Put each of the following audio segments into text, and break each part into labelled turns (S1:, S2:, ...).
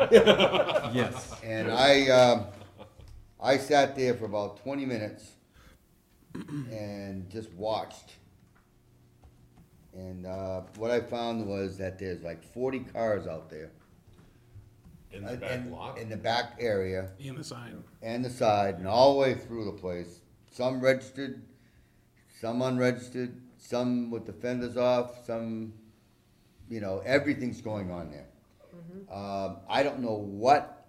S1: Yes.
S2: And I, um, I sat there for about twenty minutes and just watched. And, uh, what I found was that there's like forty cars out there.
S3: In
S2: uh,
S3: the back lot?
S2: In the back area
S4: in the sign.
S2: and the side and all the way through the place. Some registered, some unregistered, some with the fenders off, some, you know, everything's going on there. Um, I don't know what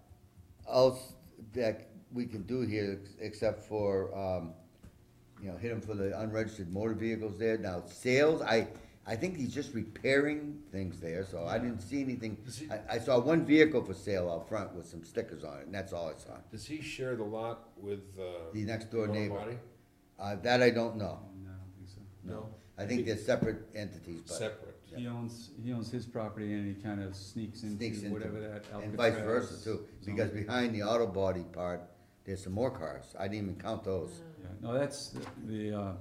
S2: else that we can do here ex- except for, um, you know, hit them for the unregistered motor vehicles there. Now, sales, I, I think he's just repairing things there, so I didn't see anything.
S3: Is he-
S2: I, I saw one vehicle for sale out front with some stickers on it, and that's all I saw.
S3: Does he share the lot with, uh?
S2: The next door
S3: Warren
S2: neighbor.
S3: Body?
S2: Uh, that I don't know.
S1: Oh, No, I don't think so.
S3: No,
S2: I think they're separate entities, but,
S3: separate.
S1: He owns, he owns his property and he kind of sneaks
S2: Sneaks
S1: into
S2: into
S1: whatever that Alcatraz.
S2: and vice versa too, because
S1: zone-
S2: behind the auto body part, there's some more cars. I didn't even count those.
S1: Yeah, No, that's the- the, uh,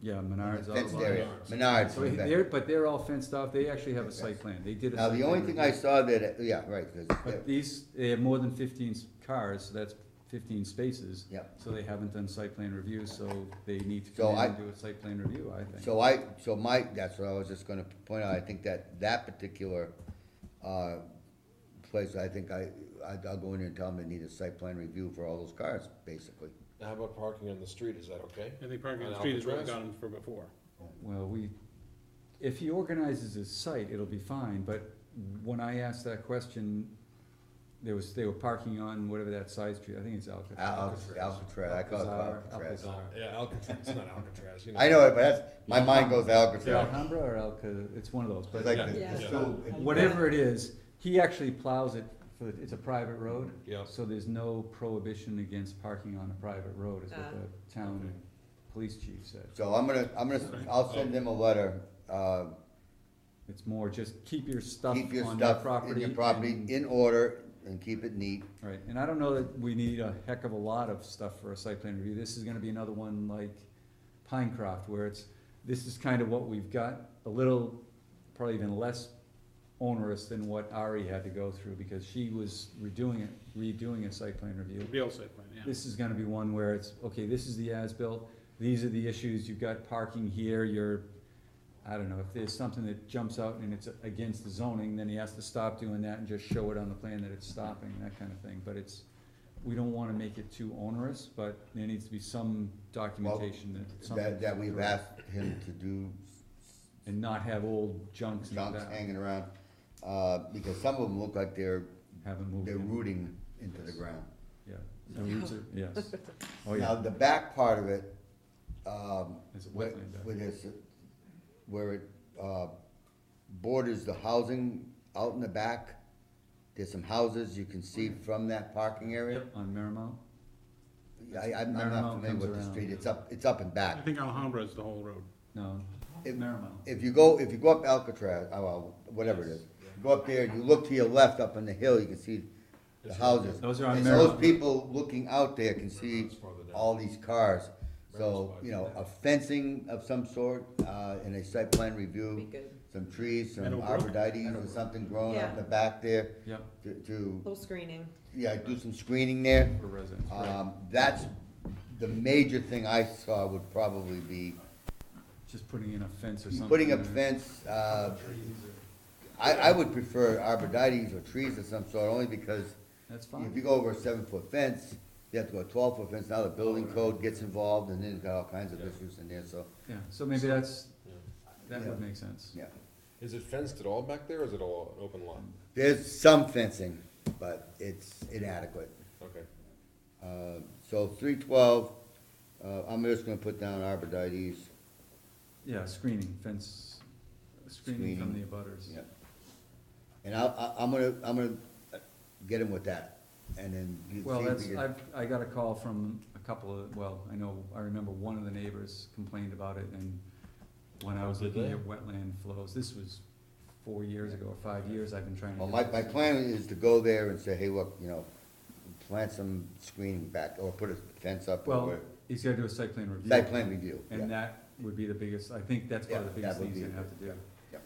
S1: yeah, Menards.
S2: Fenced
S1: Autobody.
S2: area,
S3: Menards.
S2: Menards.
S1: So he-
S2: back.
S1: they're, but they're all fenced off, they actually have a site plan, they did a.
S2: Now,
S1: site
S2: the only
S1: plan
S2: thing I
S1: review.
S2: saw that, yeah, right, 'cause they're-
S1: But these, they have more than fifteen s- cars, so that's fifteen spaces.
S2: Yep.
S1: So they haven't done site plan review, so they need to
S2: So
S1: come in
S2: I-
S1: and do a site plan review, I think.
S2: So I, so my, that's what I was just gonna point out, I think that, that particular, uh, place, I think I, I- I'll go in there and tell them they need a site plan review for all those cars, basically.
S3: Now, how about parking on the street, is that okay?
S4: I think parking on the
S3: On
S4: street is where we got
S3: Alcatraz?
S4: them for before.
S1: Well, we, if he organizes his site, it'll be fine, but when I asked that question, there was, they were parking on whatever that side street, I think it's
S2: Al-
S1: Alcatraz.
S2: Alcatraz, I call it
S1: Alcazar,
S2: Alcatraz.
S1: Alcazar.
S3: Yeah, Alcatraz, it's not Alcatraz, you know.
S2: I know it, but that's, my mind goes to
S1: Is it
S2: Alcatraz.
S1: Alhambra or Alca, it's one of those,
S2: It's
S1: but
S2: like, the-
S5: Yeah.
S2: it's so-
S1: whatever it is, he actually plows it for, it's a private road.
S3: Yeah.
S1: So there's no prohibition against parking on a private road, is what
S5: Ah.
S1: the town police chief said.
S2: So I'm gonna, I'm gonna, I'll send them a letter, uh,
S1: It's more just keep your stuff
S2: keep your
S1: on your
S2: stuff
S1: property.
S2: in your property
S1: and-
S2: in order and keep it neat.
S1: Right, and I don't know that we need a heck of a lot of stuff for a site plan review, this is gonna be another one like Pinecroft, where it's, this is kind of what we've got, a little, probably even less onerous than what Ari had to go through, because she was redoing it, redoing a site plan review.
S4: Real estate plan, yeah.
S1: This is gonna be one where it's, okay, this is the as-built, these are the issues, you've got parking here, you're, I don't know, if there's something that jumps out and it's against the zoning, then he has to stop doing that and just show it on the plan that it's stopping, that kind of thing, but it's, we don't wanna make it too onerous, but there needs to be some documentation that something.
S2: That, that we've asked him to do
S1: And not have old junks and
S2: junks
S1: that,
S2: hanging around, uh, because some of them look like they're,
S1: haven't moved
S2: they're
S1: in.
S2: rooting into the ground.
S1: Yeah, The roots are- yes, oh
S2: Now,
S1: yeah,
S2: the back part of it, um,
S1: it's a
S2: where,
S1: wetland back
S2: where this, where it, uh, borders the housing out in the back, there's some houses you can see from that parking area.
S1: Yep, on Merrimount,
S2: I, I'm I'm
S1: Marymount
S2: not familiar with
S1: comes
S2: the
S1: around.
S2: street, it's up, it's up and
S4: I
S2: back.
S4: think Alhambra is the whole road.
S1: no,
S2: If-
S1: Merrimount.
S2: If you go, if you go up Alcatraz, oh, well, whatever it is, go up there, you look to your left up on the hill, you can see the houses.
S1: Those are on
S2: And
S1: Merrimount.
S2: Those people looking out there can see
S3: Merrimount's farther down.
S2: all these cars. So,
S3: Merrimount's
S2: you know, a fencing of some sort, uh, and a site plan
S5: Be
S2: review,
S5: good.
S2: some trees, some
S4: Meadowbrook?
S2: arborvitae's or something growing up
S5: Yeah.
S2: the back there
S1: Yep,
S2: to, to,
S5: Little screening.
S2: yeah, do some screening there.
S1: for residents, right,
S2: Um, that's, the major thing I saw would probably be
S1: just putting in a fence or something.
S2: putting up
S1: or-
S2: fence, uh, I, I would prefer arborvitae's or trees of some sort, only because
S1: That's fine.
S2: if you go over a seven-foot fence, you have to go a twelve-foot fence, now the building code gets involved, and then you've got all kinds of issues in there, so,
S1: Yeah, so maybe that's,
S3: Yeah.
S1: that would
S2: Yeah.
S1: make sense.
S2: yeah.
S3: Is it fenced at all back there, or is it all an open lot?
S2: There's some fencing, but it's inadequate.
S3: Okay.
S2: Uh, so three twelve, uh, I'm just gonna put down arborvitae's,
S1: Yeah, screening, fence, screening from the
S2: Screening,
S1: abutters.
S2: yeah. And I, I, I'm gonna, I'm gonna uh, get him with that, and then. you
S1: Well,
S2: see if
S1: that's,
S2: you-
S1: I've, I got a call from a couple of, well, I know, I remember one of the neighbors complained about it and when I was
S3: Did
S1: looking
S3: they?
S1: at wetland flows, this was four years ago, or five years I've been trying to.
S2: Well,
S1: do
S2: my,
S1: this.
S2: my plan is to go there and say, hey, look, you know, plant some screening back, or put a fence up, or
S1: Well,
S2: whatever.
S1: he's gotta do a site plan review.
S2: site plan review, yeah.
S1: And that would be the biggest, I think that's one of the
S2: Yeah, that
S1: biggest
S2: would
S1: things
S2: be
S1: you
S2: the
S1: have to do.
S2: yeah.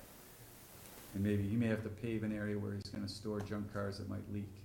S1: And maybe he may have to pave an area where he's gonna store junk cars that might leak.